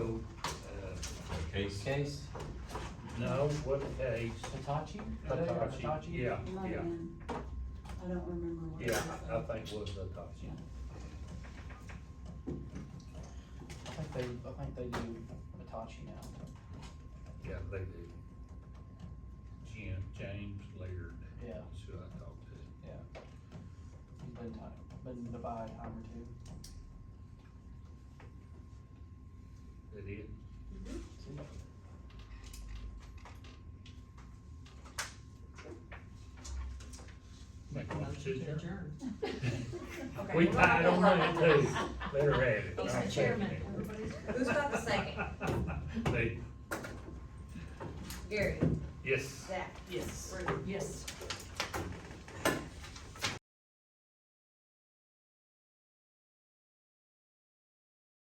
Case. Case, Uh, No, what case? Hitachi? Hitachi, yeah, Might yeah, have been. I don't remember what it yeah, was. I think it was Hitachi. I think they, I think they do Hitachi now, Yeah, they do. Jim, James Laird, yeah, that's who I talked to. he's been time, been to buy a time or two. That it? Make one decision. Okay, We we're tied on that not- too. Better have it. He's the chairman, everybody's. Who's got the second? Me. Gary, Yes. Zach, Yes. Ruth, Yes.